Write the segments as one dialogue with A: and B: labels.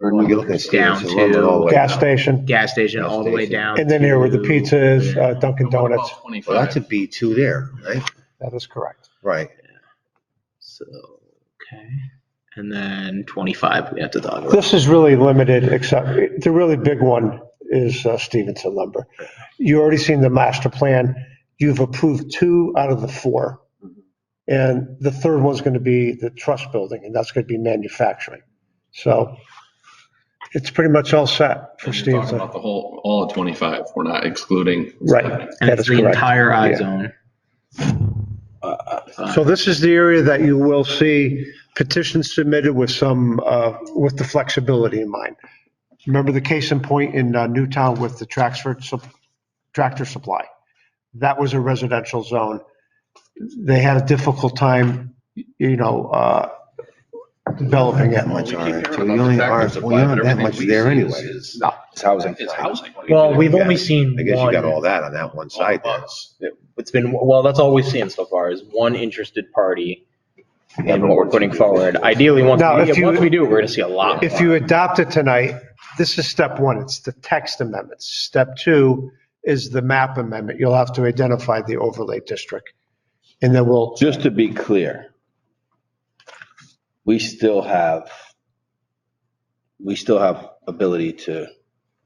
A: Or New York and State,
B: Down
A: it's a little
B: to-
A: lower
C: gas
A: now.
C: station,
B: gas station all the way
A: Gas station.
B: down.
C: and then here where the
B: to-
C: pizza is, uh, Dunkin'
D: And what about
C: Donuts.
D: 25?
A: Well, that's a B2 there, right?
C: That is correct.
A: Right.
B: So, okay. And then 25, we have to talk about.
C: This is really limited, except, the really big one is uh, Stevenson lumber. You already seen the master plan. You've approved two out of the four. And the third one's going to be the trust building, and that's going to be manufacturing. So it's pretty much all set for
D: And You're talking
C: Stevenson.
D: about the whole, all of 25. We're not excluding.
C: Right,
B: And
C: that
B: it's
C: is
B: the
C: correct.
B: entire I
C: Yeah.
B: zone.
C: So this is the area that you will see petitions submitted with some, uh, with the flexibility in mind. Remember the case in point in uh, Newtown with the tractor, sup- tractor supply? That was a residential zone. They had a difficult time, you know, uh, developing it.
A: That much
D: We keep
A: RF2.
D: hearing about
A: You
D: the
A: only
D: factory
A: are,
D: supply,
A: well, you're
D: but
A: not that
D: everything
A: much
D: we
A: there
D: see
A: anyway.
D: is- is-
A: It's housing.
D: It's
A: side.
D: housing.
E: Well, we've
A: Yeah.
E: only seen
A: I guess you got all
E: one.
A: that on that one side there.
F: It's been, well, that's all we've seen so far is one interested party in what we're putting forward. Ideally, once,
C: Now, if
F: we-
C: you-
F: once we do, we're going to see a lot.
C: If
F: more.
C: you adopt it tonight, this is step one, it's the text amendments. Step two is the map amendment. You'll have to identify the overlay district. And then we'll
G: Just to be clear, we still have, we still have ability to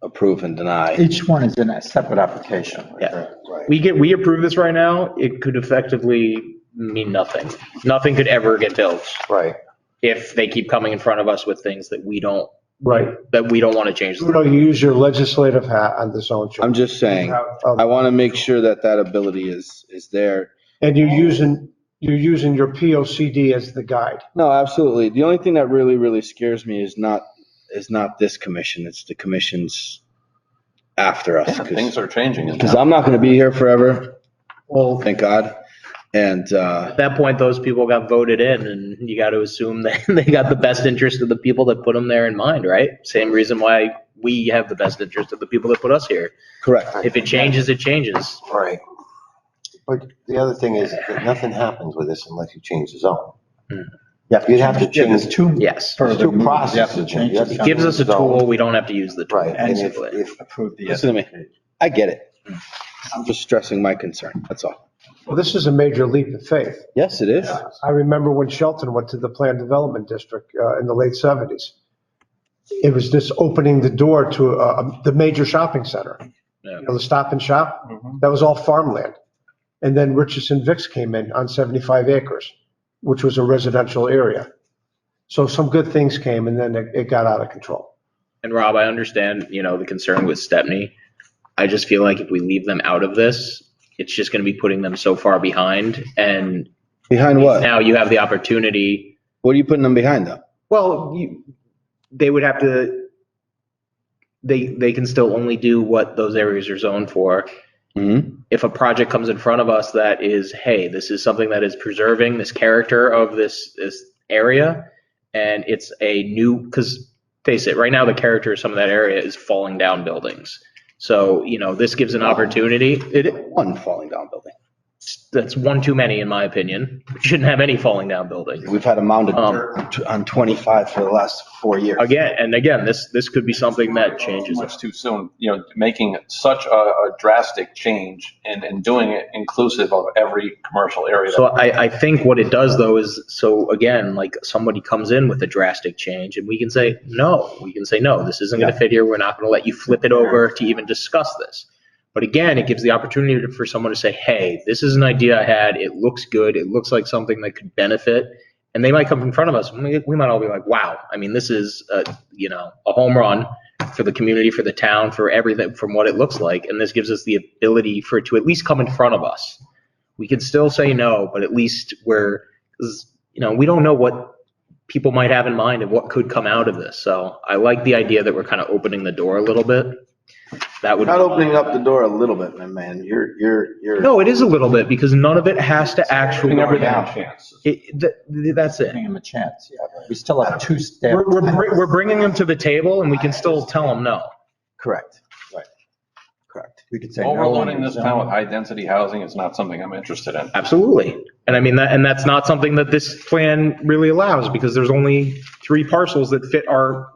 G: approve and deny.
H: Each one is in a separate application.
F: Yeah. We get, we approve this right now, it could effectively mean nothing. Nothing could ever get built
H: Right.
F: if they keep coming in front of us with things that we don't,
C: Right.
F: that we don't want to change.
C: Bruno, you use your legislative hat on the zone
G: I'm
C: change.
G: just saying, I
C: Um,
G: want to make sure that that ability is, is there.
C: And you're using, you're using your P O C D as the guide.
G: No, absolutely. The only thing that really, really scares me is not, is not this commission. It's the commissions after us.
D: Yeah, Things are changing. in
G: Because
D: town.
G: I'm not going to be here forever,
F: Well,
G: thank God. And, uh,
F: at that point, those people got voted in and you got to assume that they got the best interest of the people that put them there in mind, right? Same reason why we have the best interest of the people that put us here.
G: correct.
F: If it changes, it changes.
H: Right.
A: But the other thing is that nothing happens with this unless you change the zone.
H: Yeah,
A: You'd have to
H: yeah, there's
A: change-
H: two.
F: Yes.
A: There's
H: further
A: two
H: moves. You have to
A: processes.
H: change
A: You have to
H: the
F: Gives us a
A: zone.
F: tool, we don't have to use the tool.
A: Right, and if,
F: basically.
A: if,
H: Approve the.
G: Listen to me. I get it. I'm just stressing my concern, that's all.
C: Well, this is a major leap of faith.
G: Yes, it is.
C: I remember when Shelton went to the Plan Development District uh, in the late 70s. It was just opening the door to uh, the major shopping center.
F: Yeah.
C: You know, the Stop and Shop, that was all farmland. And then Richardson Vicks came in on 75 acres, which was a residential area. So some good things came and then it it got out of control.
F: And Rob, I understand, you know, the concern with Stepney. I just feel like if we leave them out of this, it's just going to be putting them so far behind. And
G: Behind what?
F: now you have the opportunity.
G: What are you putting them behind though?
F: Well, you, they would have to, they, they can still only do what those areas are zoned for.
G: Mm-hmm.
F: If a project comes in front of us that is, hey, this is something that is preserving this character of this, this area. And it's a new, because face it, right now the character of some of that area is falling down buildings. So, you know, this gives an opportunity. It,
G: One falling down building.
F: that's one too many, in my opinion. We shouldn't have any falling down buildings.
G: We've had a mound of
F: Um,
G: dirt on 25 for the last four years.
F: Again, and again, this, this could be something that changes.
D: Much too soon, you know, making such a a drastic change and, and doing it inclusive of every commercial area. that
F: So I, I think what it does though is, so again, like somebody comes in with a drastic change and we can say, no, we can say, no, this isn't gonna fit here. We're not gonna let you flip it over to even discuss this. But again, it gives the opportunity for someone to say, hey, this is an idea I had. It looks good. It looks like something that could benefit. And they might come in front of us. and We, we might all be like, wow, I mean, this is, a, you know, a home run for the community, for the town, for everything, from what it looks like. And this gives us the ability for it to at least come in front of us we can still say no, but at least we're, 'cause, you know, we don't know what people might have in mind and what could come out of this. So I like the idea that we're kind of opening the door a little bit. That would.
G: Not opening up the door a little bit, my man. You're, you're, you're.
F: No, it is a little bit because none of it has to actually.
D: Giving everything a chance.
F: It, th- that's it.
H: Giving them a chance, yeah. We still have two steps.
F: We're, we're, br- we're bringing them to the table and we can still tell them no.
G: Correct. Right. Correct.
H: We could say no.
D: Overloading this town with high-density housing is not something I'm interested in.
F: Absolutely. And I mean, that, and that's not something that this plan really allows because there's only three parcels that fit our